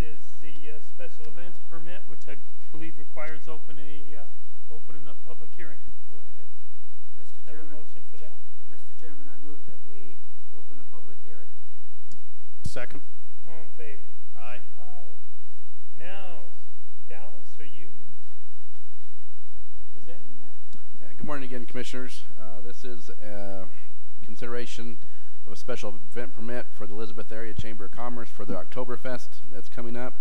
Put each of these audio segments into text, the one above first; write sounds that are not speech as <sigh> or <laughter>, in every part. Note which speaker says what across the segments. Speaker 1: is the uh, special events permit, which I believe requires opening a, uh, opening a public hearing. Do I have-
Speaker 2: Mr.
Speaker 1: have a
Speaker 2: Chairman,
Speaker 1: motion for that?
Speaker 2: Mr. Chairman, I move that we open a public hearing.
Speaker 3: Second.
Speaker 1: All in favor?
Speaker 3: Aye.
Speaker 1: Aye. Now, Dallas, are you presenting that?
Speaker 3: Uh, Good morning again, Commissioners. Uh, This is uh, consideration of a special event permit for the Elizabeth Area Chamber of Commerce for the Oktoberfest that's coming up.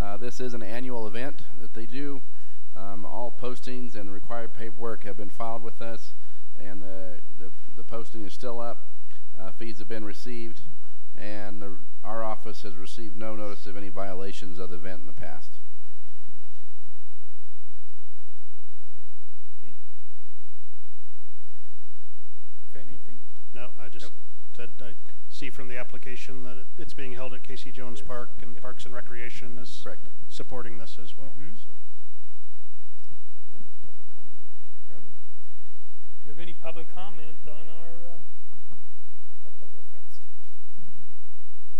Speaker 3: Uh, This is an annual event that they do. Um, All postings and the required paperwork have been filed with us, and the the the posting is still up. Uh, Fees have been received, and the- our office has received no notice of any violations of the event in the past.
Speaker 1: Okay. If anything?
Speaker 4: No, I just
Speaker 1: Nope.
Speaker 4: said, I see from the application that it- it's being held at Casey Jones
Speaker 1: Yes.
Speaker 4: Park and
Speaker 1: Yep.
Speaker 4: Parks and Recreation is
Speaker 3: Correct.
Speaker 4: supporting this as well.
Speaker 1: Mhm.
Speaker 4: so.
Speaker 1: No? Do you have any public comment on our uh, Oktoberfest?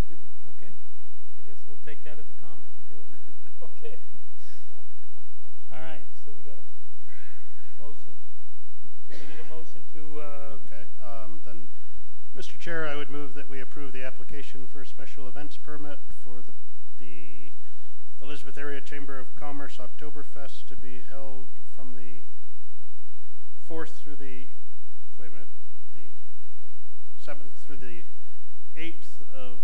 Speaker 1: Do, okay. I guess we'll take that as a comment. Do it. <laughs> Okay. All right, so we got a motion. Do we need a motion to, uh,
Speaker 4: Okay, um, then, Mr. Chair, I would move that we approve the application for a special events permit for the, the Elizabeth Area Chamber of Commerce Oktoberfest to be held from the fourth through the, wait a minute, the seventh through the eighth of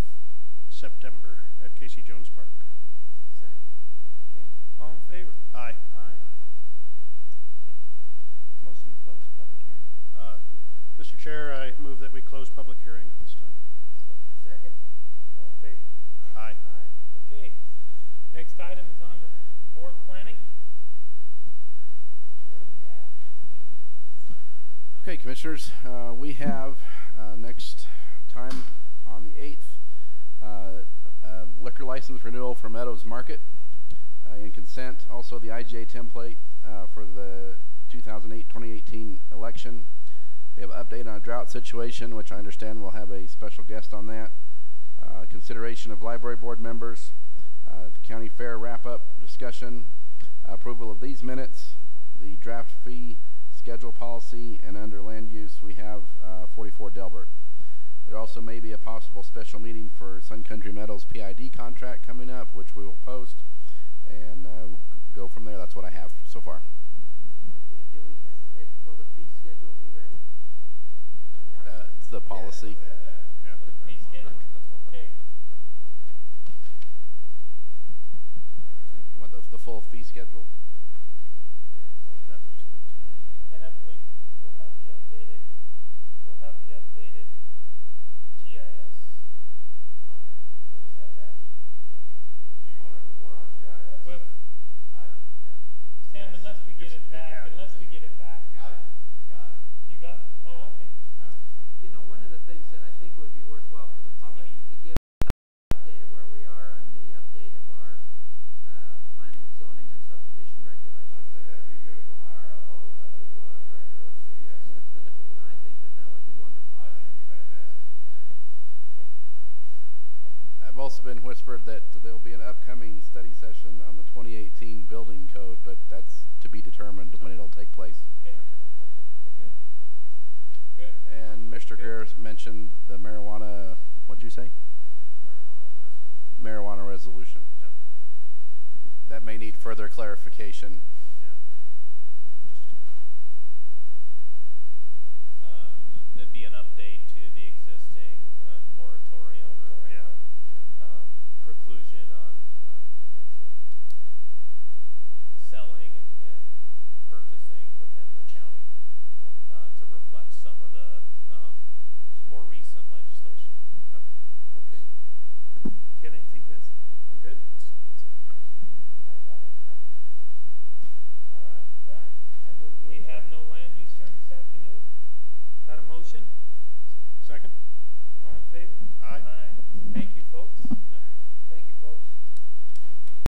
Speaker 4: September at Casey Jones Park.
Speaker 2: Second.
Speaker 1: okay, all in favor?
Speaker 4: Aye.
Speaker 1: Aye. Okay. Motion to close public hearing.
Speaker 4: Uh, Mr. Chair, I move that we close public hearing at this time.
Speaker 2: Second.
Speaker 1: All in favor?
Speaker 4: Aye.
Speaker 1: Aye. Okay. Next item is on to board planning. What do we have?
Speaker 3: Okay, Commissioners, uh, we have uh, next time on the 8th, uh, a liquor license renewal for Meadows Market uh, in consent, also the IGA template uh, for the 2008-2018 election. We have an update on drought situation, which I understand we'll have a special guest on that. Uh, Consideration of library board members, uh, county fair wrap-up discussion, approval of these minutes, the draft fee schedule policy, and under land use, we have uh, 44 Delbert. There also may be a possible special meeting for Sun Country Metals PID contract coming up, which we will post, and uh, we'll go from there. That's what I have so far.
Speaker 2: Do we, will the fee schedule be ready?
Speaker 3: Uh, It's the policy.
Speaker 4: Yeah.
Speaker 1: Put the fee schedule, okay.
Speaker 3: You want the, the full fee schedule?
Speaker 4: That looks good to me.
Speaker 1: And I believe we'll have the updated, we'll have the updated GIS. Will we have that?
Speaker 5: Do you want to report on GIS?
Speaker 1: With,
Speaker 5: I, yeah.
Speaker 1: Sam,
Speaker 5: Yes.
Speaker 1: unless we get
Speaker 4: It's-
Speaker 1: it back,
Speaker 4: yeah.
Speaker 1: unless we get it back,
Speaker 5: I got it.
Speaker 1: you got, oh, okay, all right.
Speaker 2: You know, one of the things that I think would be worthwhile for the public to give an update of where we are on the update of our uh, planning, zoning, and subdivision
Speaker 5: I
Speaker 2: regulations.
Speaker 5: think that'd be good from our uh, public, uh, new uh, director of CDS.
Speaker 2: I think that that would be wonderful.
Speaker 5: I think it'd be fantastic.
Speaker 3: I've also been whispered that there'll be an upcoming study session on the 2018 building code, but that's to be determined when it'll take place.
Speaker 1: Okay. Good. Good.
Speaker 3: And Mr. Greer mentioned the marijuana, what'd you say? Marijuana resolution.
Speaker 4: Yep.
Speaker 3: That may need further clarification.